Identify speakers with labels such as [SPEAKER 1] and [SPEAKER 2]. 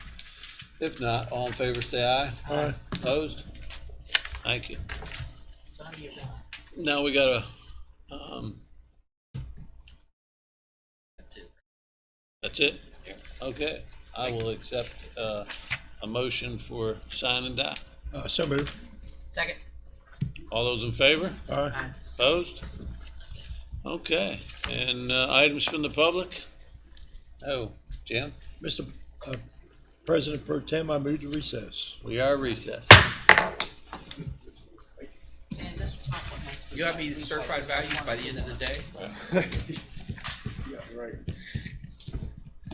[SPEAKER 1] If not, all in favor, say aye.
[SPEAKER 2] Aye.
[SPEAKER 1] Opposed? Thank you.
[SPEAKER 3] It's on to you, Ron.
[SPEAKER 1] Now we got a, um,
[SPEAKER 3] That's it.
[SPEAKER 1] that's it? Okay, I will accept, uh, a motion for sign and die.
[SPEAKER 2] Uh, so moved.
[SPEAKER 3] Second.
[SPEAKER 1] All those in favor?
[SPEAKER 2] Aye.
[SPEAKER 1] Opposed? Okay, and, uh, items from the public? Oh, Jim,
[SPEAKER 2] Mr. uh, President Pro Tem, I move to recess.
[SPEAKER 1] we are recessed.
[SPEAKER 3] And this was my point, nice to
[SPEAKER 4] You have
[SPEAKER 3] meet
[SPEAKER 4] me certified values by the end of the day?
[SPEAKER 5] Yeah, right.